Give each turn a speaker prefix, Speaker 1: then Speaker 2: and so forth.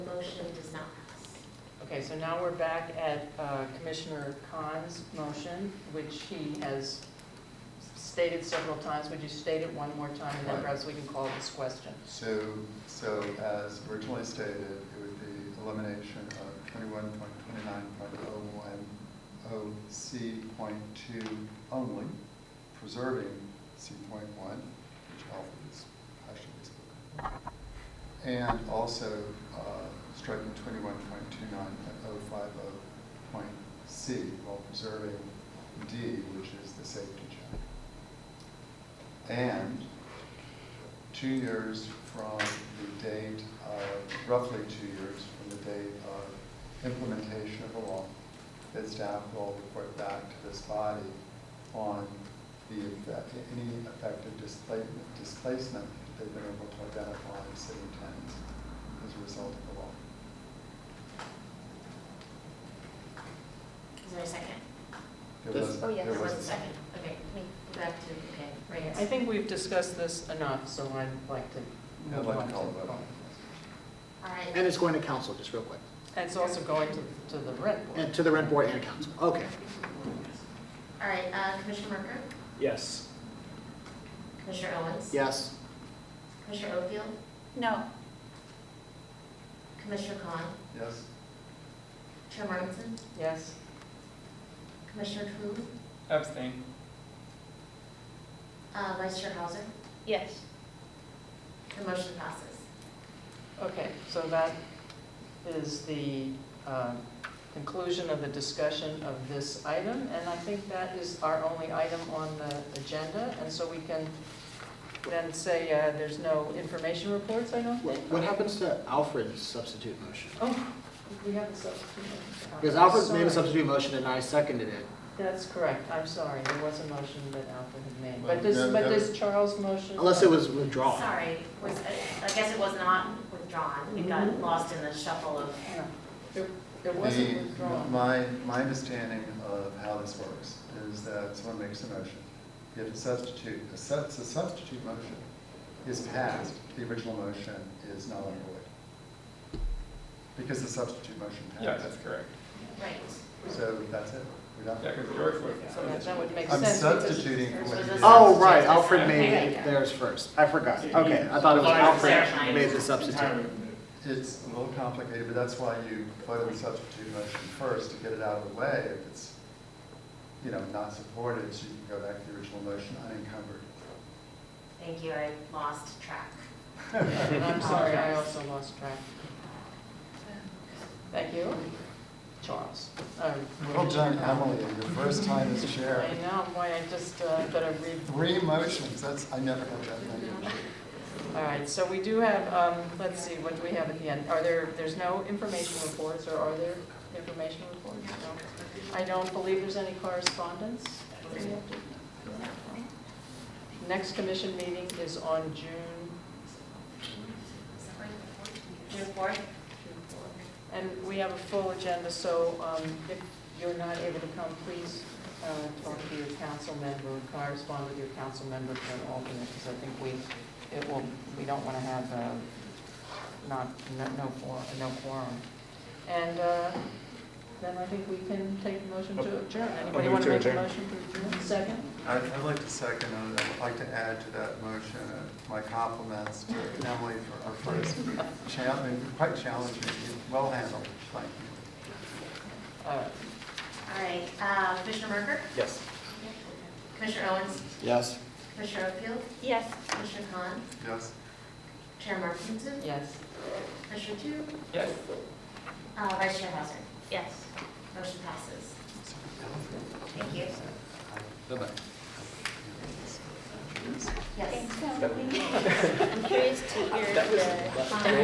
Speaker 1: Okay, so now we're back at uh, Commissioner Khan's motion, which he has stated several times. Would you state it one more time, and then
Speaker 2: Right.
Speaker 1: perhaps we can call this question?
Speaker 2: So, so as originally stated, it would be elimination of twenty-one point twenty-nine point oh one oh C point two only, preserving C point one, which Alfred has passionately spoken. about, And also uh, striking twenty-one point two nine point oh five oh point C while preserving D, which is the safety check. And two years from the date of, roughly two years from the date of implementation of the law, that staff will report back to this body on the, effect- any effective displacement, displacement that they've been able to identify in city towns as a result of the law.
Speaker 3: Is there a second?
Speaker 2: There
Speaker 1: This-
Speaker 2: was-
Speaker 3: Oh, yeah, there was a
Speaker 2: a-
Speaker 3: second. Okay, let me go back to, okay, right.
Speaker 1: I think we've discussed this enough, so I'd like to
Speaker 2: I'd
Speaker 1: move
Speaker 2: like
Speaker 1: on
Speaker 2: to
Speaker 1: to
Speaker 2: call it up.
Speaker 3: All
Speaker 4: And
Speaker 3: right,
Speaker 4: it's going to council, just real quick.
Speaker 1: And it's also going to, to the rent board.
Speaker 4: And to the rent board and council. Okay.
Speaker 3: all right, uh, Commissioner Merker,
Speaker 5: Yes.
Speaker 3: Commissioner Owens.
Speaker 4: Yes.
Speaker 3: Commissioner Oakfield,
Speaker 6: No.
Speaker 3: Commissioner Khan,
Speaker 2: Yes?
Speaker 3: Chair Martenson,
Speaker 1: Yes?
Speaker 3: Commissioner Tru,
Speaker 5: Abstain.
Speaker 3: uh, Vice Chair Hauser,
Speaker 6: Yes.
Speaker 3: the motion passes.
Speaker 1: Okay, so that is the um, conclusion of the discussion of this item, and I think that is our only item on the agenda, and so we can then say uh, there's no information reports, I don't
Speaker 4: What
Speaker 1: think?
Speaker 4: what happens to Alfred's substitute motion?
Speaker 1: Oh, we have a substitute.
Speaker 4: Because Alfred made
Speaker 1: Sorry.
Speaker 4: a substitute motion and I seconded it.
Speaker 1: That's correct, I'm sorry, there was a motion that Alfred had made,
Speaker 2: Well,
Speaker 1: but does,
Speaker 2: that-
Speaker 1: but
Speaker 2: that-
Speaker 1: does Charles' motion?
Speaker 4: Unless it was withdrawn.
Speaker 3: Sorry, was, I guess it was not withdrawn. We got lost in the shuffle of,
Speaker 1: No, It it
Speaker 2: The-
Speaker 1: wasn't withdrawn.
Speaker 2: My, my understanding of how this works is that someone makes a motion, you have to substitute, a sub- a substitute motion is passed, the original motion is null and void. Because the substitute motion
Speaker 5: Yeah,
Speaker 2: passed.
Speaker 5: that's correct.
Speaker 3: right.
Speaker 2: So that's it, we're done.
Speaker 5: Yeah, because George would.
Speaker 1: So that- That would make
Speaker 2: I'm
Speaker 1: sense. because-
Speaker 2: substituting for what you did.
Speaker 4: Oh, right, Alfred
Speaker 3: Okay,
Speaker 4: made
Speaker 3: yeah.
Speaker 4: theirs first. I forgot. Okay, I thought it was Alfred made the substitute.
Speaker 2: It's a little complicated, but that's why you vote on the substitute motion first, to get it out of the way. If it's, you know, not supported, so you can go back to the original motion unencumbered.
Speaker 3: Thank you, I lost track.
Speaker 1: And I'm sorry, I also lost track. Thank you, Charles. Um,
Speaker 2: Well done, Emily, your first time as chair.
Speaker 1: I know, why, I just uh, better read.
Speaker 2: Three motions, that's, I never had that many.
Speaker 1: All right, so we do have, um, let's see, what do we have at the end? Are there, there's no information reports, or are there information reports? No. I don't believe there's any correspondence. Next commission meeting is on June
Speaker 3: June fourth?
Speaker 1: And we have a full agenda, so um, if you're not able to come, please uh, talk to your council member, correspond with your council member for an alternate, because I think we, it will, we don't want to have uh, not, no no quorum, no quorum. And uh, then I think we can take a motion to
Speaker 5: Oh.
Speaker 1: adjourn. Anybody
Speaker 5: move
Speaker 1: want to
Speaker 5: to
Speaker 1: make a
Speaker 5: adjourn.
Speaker 1: motion to adjourn? Second?
Speaker 2: I'd I'd like to second, and I'd like to add to that motion uh, my compliments to Emily for our first challenge, quite challenging, well handled, thank you.
Speaker 1: All right.
Speaker 3: All right, uh, Commissioner Merker,
Speaker 5: Yes.
Speaker 3: Commissioner Owens,
Speaker 4: Yes.
Speaker 3: Commissioner Oakfield,
Speaker 6: Yes.
Speaker 3: Commissioner Khan,
Speaker 2: Yes?
Speaker 3: Chair Martenson,
Speaker 1: Yes.
Speaker 3: Commissioner Tru,
Speaker 5: Yes.
Speaker 3: uh, Vice Chair Hauser.
Speaker 6: Yes.
Speaker 3: Motion passes. Thank you.
Speaker 4: Bye-bye.
Speaker 3: Yes.
Speaker 6: I'm curious to hear the.